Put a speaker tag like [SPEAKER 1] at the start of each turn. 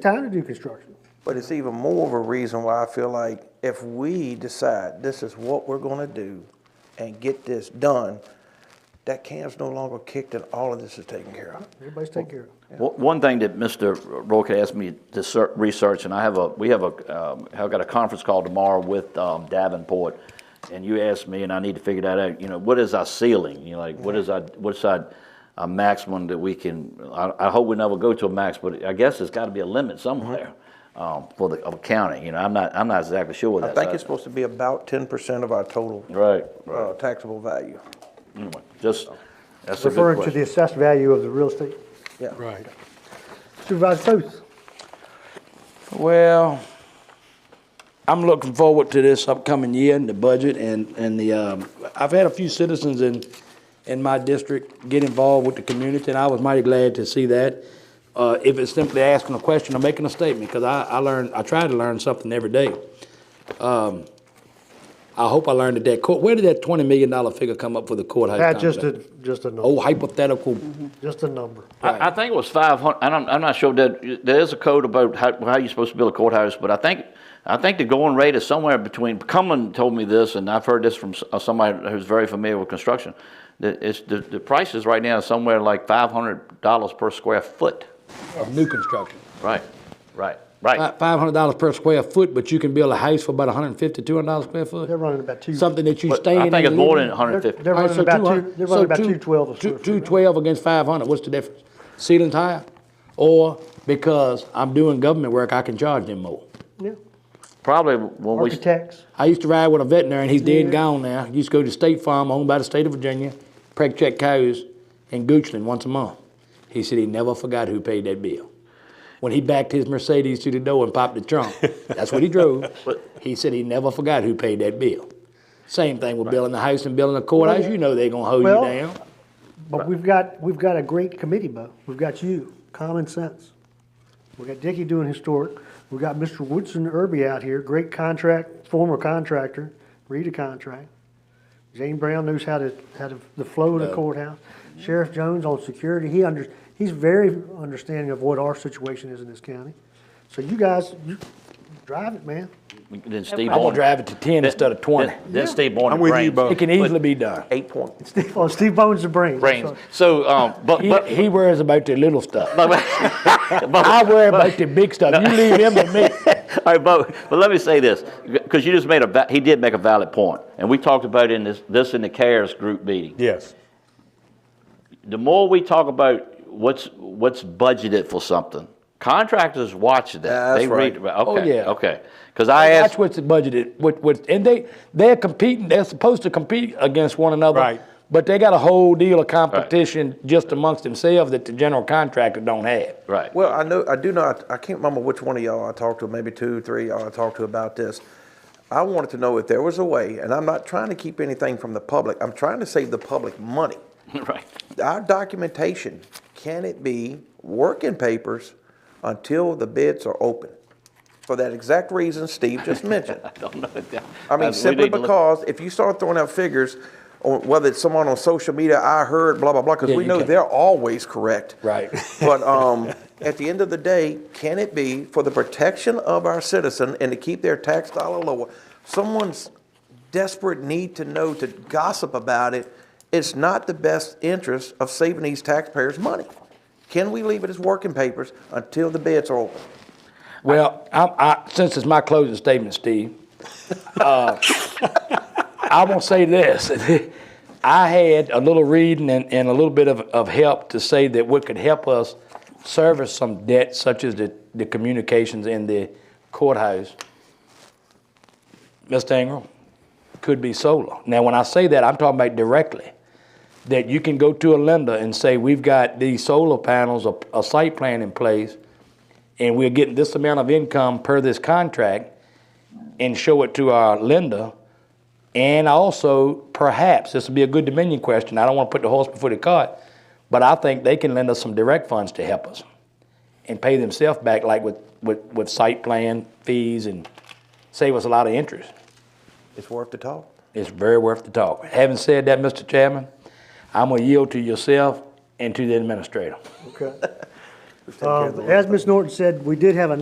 [SPEAKER 1] time to do construction.
[SPEAKER 2] But it's even more of a reason why I feel like if we decide this is what we're gonna do and get this done, that can's no longer kicked and all of this is taken care of.
[SPEAKER 1] Everybody's taking care of it.
[SPEAKER 3] One one thing that Mr. Roca asked me to ser- research, and I have a, we have a, um, I've got a conference call tomorrow with um, Davenport, and you asked me, and I need to figure that out, you know, what is our ceiling? You know, like, what is our, what's our, our maximum that we can, I, I hope we never go to a max, but I guess there's gotta be a limit somewhere um, for the, of county, you know, I'm not, I'm not exactly sure what
[SPEAKER 2] I
[SPEAKER 3] that's.
[SPEAKER 2] think it's supposed to be about ten percent of our total
[SPEAKER 3] Right,
[SPEAKER 2] uh,
[SPEAKER 3] right,
[SPEAKER 2] taxable value.
[SPEAKER 3] anyway, just, that's a good
[SPEAKER 1] Referring to
[SPEAKER 3] question.
[SPEAKER 1] the assessed value of the real estate.
[SPEAKER 2] Yeah.
[SPEAKER 4] Right.
[SPEAKER 1] Supervisor Booth,
[SPEAKER 4] Well, I'm looking forward to this upcoming year and the budget and, and the, um, I've had a few citizens in, in my district get involved with the community, and I was mighty glad to see that. Uh, if it's simply asking a question or making a statement, because I, I learn, I try to learn something every day. Um, I hope I learned that that court, where did that twenty million dollar figure come up for the courthouse?
[SPEAKER 1] Pat, just a, Mm-hmm.
[SPEAKER 4] complex?
[SPEAKER 1] just a
[SPEAKER 4] Oh,
[SPEAKER 1] number,
[SPEAKER 4] hypothetical,
[SPEAKER 1] just a number.
[SPEAKER 3] I, I think it was five hundred, I'm, I'm not sure that, there is a code about how, how you're supposed to build a courthouse, but I think, I think the going rate is somewhere between, Cumberland told me this, and I've heard this from s- uh, somebody who's very familiar with construction, that it's, the, the prices right now are somewhere like five hundred dollars per square foot.
[SPEAKER 4] of new construction.
[SPEAKER 3] Right, right, right.
[SPEAKER 4] Five hundred dollars per square foot, but you can build a house for about a hundred and fifty, two hundred dollars square foot?
[SPEAKER 1] They're running about two-
[SPEAKER 4] Something that you
[SPEAKER 3] But
[SPEAKER 4] stay in.
[SPEAKER 3] I think
[SPEAKER 4] and
[SPEAKER 3] it's more
[SPEAKER 4] live in?
[SPEAKER 3] than a hundred fifty.
[SPEAKER 1] They're
[SPEAKER 4] All right,
[SPEAKER 1] running
[SPEAKER 4] so
[SPEAKER 1] about
[SPEAKER 4] 200
[SPEAKER 1] two, they're
[SPEAKER 4] so
[SPEAKER 1] running about two twelve a
[SPEAKER 4] two-
[SPEAKER 1] square foot.
[SPEAKER 4] 212 against five hundred, what's the difference? Ceiling's higher, or because I'm doing government work, I can charge them more.
[SPEAKER 1] Yeah.
[SPEAKER 3] Probably when we.
[SPEAKER 1] Architects,
[SPEAKER 4] I used to ride with a veterinarian, he's dead and
[SPEAKER 1] Yeah.
[SPEAKER 4] gone now, used to go to State Farm, owned by the state of Virginia, preg check cows in Goochland once a month. He said he never forgot who paid that bill. When he backed his Mercedes to the door and popped the trunk, that's what he drove. He said he never forgot who paid that bill. Same thing with building a house and building a courthouse, you know they're gonna hold
[SPEAKER 1] Well-
[SPEAKER 4] you down.
[SPEAKER 1] but we've got, we've got a great committee, Bo. We've got you, Common Sense. We've got Dickie doing historic. We've got Mr. Woodson Irby out here, great contract, former contractor, read a contract. Jane Brown knows how to, how to, the flow of the courthouse. Sheriff Jones on security, he under, he's very understanding of what our situation is in this county. So you guys, you drive it, man.
[SPEAKER 3] Then Steve
[SPEAKER 4] I'm gonna
[SPEAKER 3] Borden-
[SPEAKER 4] drive it to ten instead of twenty.
[SPEAKER 3] then- Then Steve Borden.
[SPEAKER 5] I'm with you,
[SPEAKER 3] brains-
[SPEAKER 5] Bo.
[SPEAKER 4] It can easily be done.
[SPEAKER 2] Eight point.
[SPEAKER 1] Steve, oh, Steve Bones the brain. I'm
[SPEAKER 3] Brains.
[SPEAKER 1] sorry.
[SPEAKER 3] So, um, but,
[SPEAKER 4] He,
[SPEAKER 3] but.
[SPEAKER 4] he worries about the little stuff.
[SPEAKER 3] but-
[SPEAKER 4] I worry about the big stuff. You leave him to me.
[SPEAKER 3] All right, but, but let me say this, because you just made a, va- he did make a valid point, and we talked about it in this, this in the CARES group meeting.
[SPEAKER 5] Yes.
[SPEAKER 3] The more we talk about what's, what's budgeted for something, contractors watch that.
[SPEAKER 2] That's
[SPEAKER 3] They read-
[SPEAKER 4] Oh,
[SPEAKER 3] Okay,
[SPEAKER 4] yeah.
[SPEAKER 3] okay. Because I
[SPEAKER 4] That's
[SPEAKER 3] asked,
[SPEAKER 4] what's budgeted. What, what, and they, they're competing, they're supposed to compete against one another.
[SPEAKER 5] Right.
[SPEAKER 4] But they got a whole deal of competition just amongst themselves that the general contractor don't have.
[SPEAKER 3] right,
[SPEAKER 2] Well, I know, I do know, I- I can't remember which one of y'all I talked to, maybe two, three y'all I talked to about this. I wanted to know if there was a way, and I'm not trying to keep anything from the public, I'm trying to save the public money.
[SPEAKER 3] right.
[SPEAKER 2] Our documentation, can it be working papers until the bids are open? For that exact reason Steve just mentioned.
[SPEAKER 3] I don't know.
[SPEAKER 2] I mean,
[SPEAKER 3] Uh, We
[SPEAKER 2] simply
[SPEAKER 3] need to look-
[SPEAKER 2] because if you start throwing out figures, on whether it's someone on social media, I heard, blah, blah, blah, because
[SPEAKER 4] Yeah,
[SPEAKER 2] we
[SPEAKER 4] you
[SPEAKER 2] know
[SPEAKER 4] can't-
[SPEAKER 2] they're always correct.
[SPEAKER 4] Right.
[SPEAKER 2] But um, at the end of the day, can it be for the protection of our citizen and to keep their tax dollar lower? Someone's desperate need to know to gossip about it, it's not the best interest of saving these taxpayers' money. Can we leave it as working papers until the bids are open?
[SPEAKER 4] Well, I'm, I, since it's my closing statement, Steve, uh, I will say this. I had a little reading and, and a little bit of, of help to say that what could help us service some debt, such as the, the communications in the courthouse, Mr. Ingram, could be solar. Now, when I say that, I'm talking about directly that you can go to a lender and say, we've got these solar panels, a, a site plan in place, and we're getting this amount of income per this contract, and show it to our lender. And also, perhaps, this would be a good Dominion question, I don't wanna put the horse before the cart, but I think they can lend us some direct funds to help us and pay themselves back like with, with, with site plan fees and save us a lot of interest.
[SPEAKER 2] It's worth the talk.
[SPEAKER 4] It's very worth the talk. Having said that, Mr. Chairman, I'm gonna yield to yourself and to the administrator.
[SPEAKER 1] Okay.
[SPEAKER 2] care of
[SPEAKER 1] Uh,
[SPEAKER 2] the
[SPEAKER 1] As Ms. Norton said, we did have a